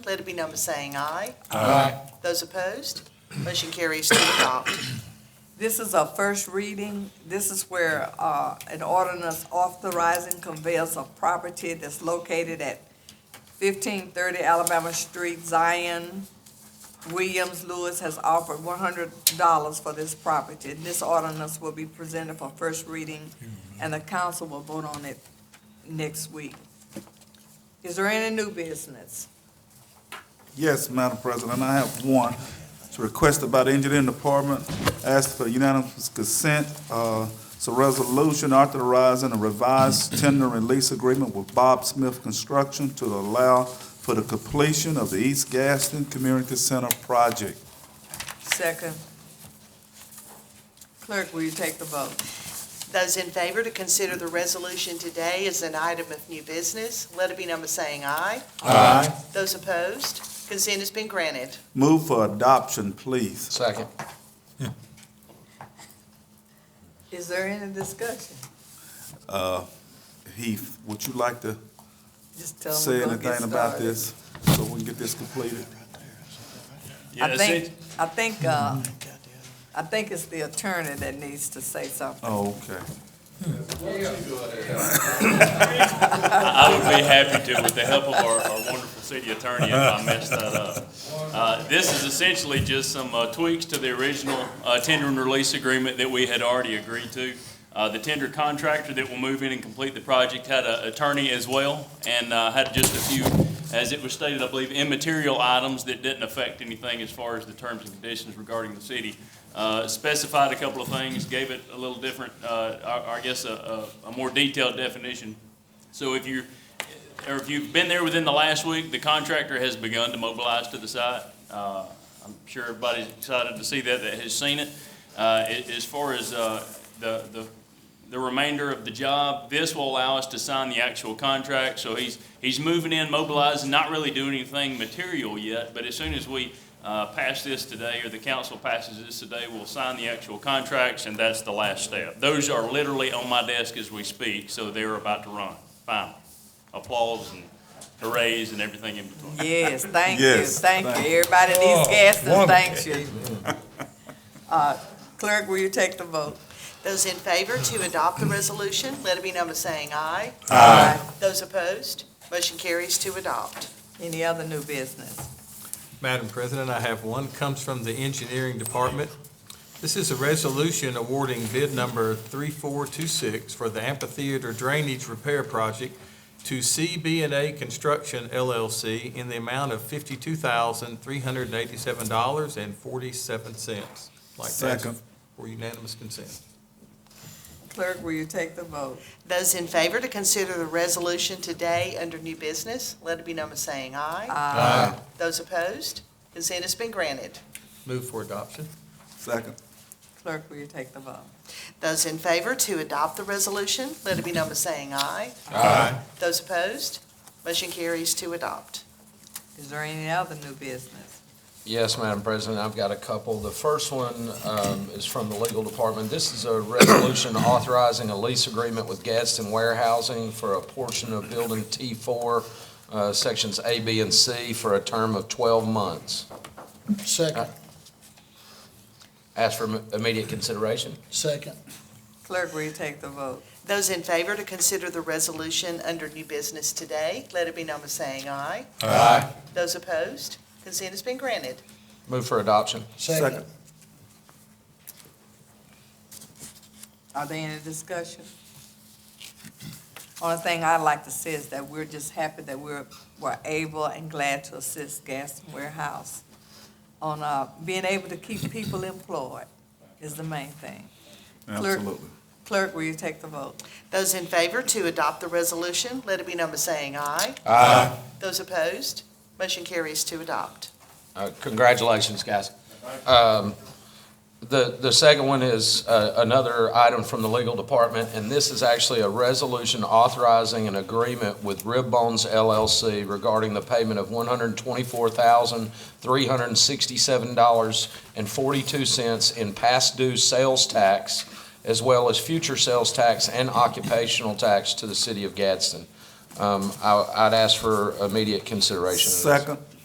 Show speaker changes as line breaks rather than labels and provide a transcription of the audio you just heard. Let it be known by saying aye. Those opposed, motion carries to adopt.
This is a first reading. This is where uh, an ordinance authorizing conveyance of property that's located at 1530 Alabama Street, Zion. Williams Lewis has offered $100 for this property. This ordinance will be presented for first reading, and the council will vote on it next week. Is there any new business?
Yes, Madam President, I have one. It's requested by the Engineering Department, asked for unanimous consent. Uh, It's a resolution authorizing a revised tender and lease agreement with Bob Smith Construction to allow for the completion of the East Gaston Community Center project.
Second. Clerk, will you take the vote?
Those in favor to consider the resolution today as an item of new business, let it be known by saying aye.
Aye.
Those opposed, consent has been granted.
Move for adoption, please.
Second.
Is there any discussion?
Uh, Heath, would you like to
Just tell them
say
we're gonna get
anything about
started.
this so we can get this completed?
I think, I think, uh,
Mm-hmm.
I think it's the attorney that needs to say something.
Oh, okay.
I would be happy to, with the help of our, our wonderful city attorney, if I messed that up. Uh, This is essentially just some uh, tweaks to the original uh, tender and release agreement that we had already agreed to. Uh, The tender contractor that will move in and complete the project had an attorney as well, and uh, had just a few, as it was stated, I believe, immaterial items that didn't affect anything as far as the terms and conditions regarding the city. Uh, Specified a couple of things, gave it a little different, uh, I I guess, a a- a more detailed definition so if you, or if you've been there within the last week, the contractor has begun to mobilize to the site. Uh, I'm sure everybody's excited to see that, that has seen it. Uh, a- As far as uh, the, the, the remainder of the job, this will allow us to sign the actual contract. So he's, he's moving in, mobilizing, not really doing anything material yet, but as soon as we uh, pass this today, or the council passes this today, we'll sign the actual contracts, and that's the last step. Those are literally on my desk as we speak, so they're about to run. Final. Applause and hoorays and everything in between.
Yes, thank you,
Yes,
thank
thank
you. Everybody in East Gaston, thanks you. Uh, Clerk, will you take the vote?
Those in favor to adopt the resolution, let it be known by saying aye.
Aye.
Those opposed, motion carries to adopt.
Any other new business?
Madam President, I have one, comes from the Engineering Department. This is a resolution awarding bid number 3426 for the amphitheater drainage repair project to CB&A Construction LLC in the amount of $52,387.47. Like to ask
Second.
for unanimous consent.
Clerk, will you take the vote?
Those in favor to consider the resolution today under new business, let it be known by saying aye.
Aye.
Those opposed, consent has been granted.
Move for adoption.
Second.
Clerk, will you take the vote?
Those in favor to adopt the resolution, let it be known by saying aye.
Aye.
Those opposed, motion carries to adopt.
Is there any other new business?
Yes, Madam President, I've got a couple. The first one um, is from the legal department. This is a resolution authorizing a lease agreement with Gadsden Warehousing for a portion of Building T4, uh, Sections A, B, and C, for a term of 12 months.
Second,
Ask for im- immediate consideration.
second,
Clerk, will you take the vote?
Those in favor to consider the resolution under new business today, let it be known by saying aye.
Aye.
Those opposed, consent has been granted.
Move for adoption.
second.
Are there any discussion? Only thing I'd like to say is that we're just happy that we're, we're able and glad to assist Gaston Warehouse on, uh, being able to keep people employed is the main thing. Clerk.
Absolutely.
Clerk, will you take the vote?
Those in favor to adopt the resolution, let it be known by saying aye.
Aye.
Those opposed, motion carries to adopt.
Uh, Congratulations, guys. Um, The, the second one is uh, another item from the legal department, and this is actually a resolution authorizing an agreement with Rib Bones LLC regarding the payment of one hundred twenty-four thousand, three hundred sixty-seven dollars and forty-two cents in past due sales tax, as well as future sales tax and occupational tax to the city of Gadsden. Um, I- I'd ask for immediate consideration. of this.
Second.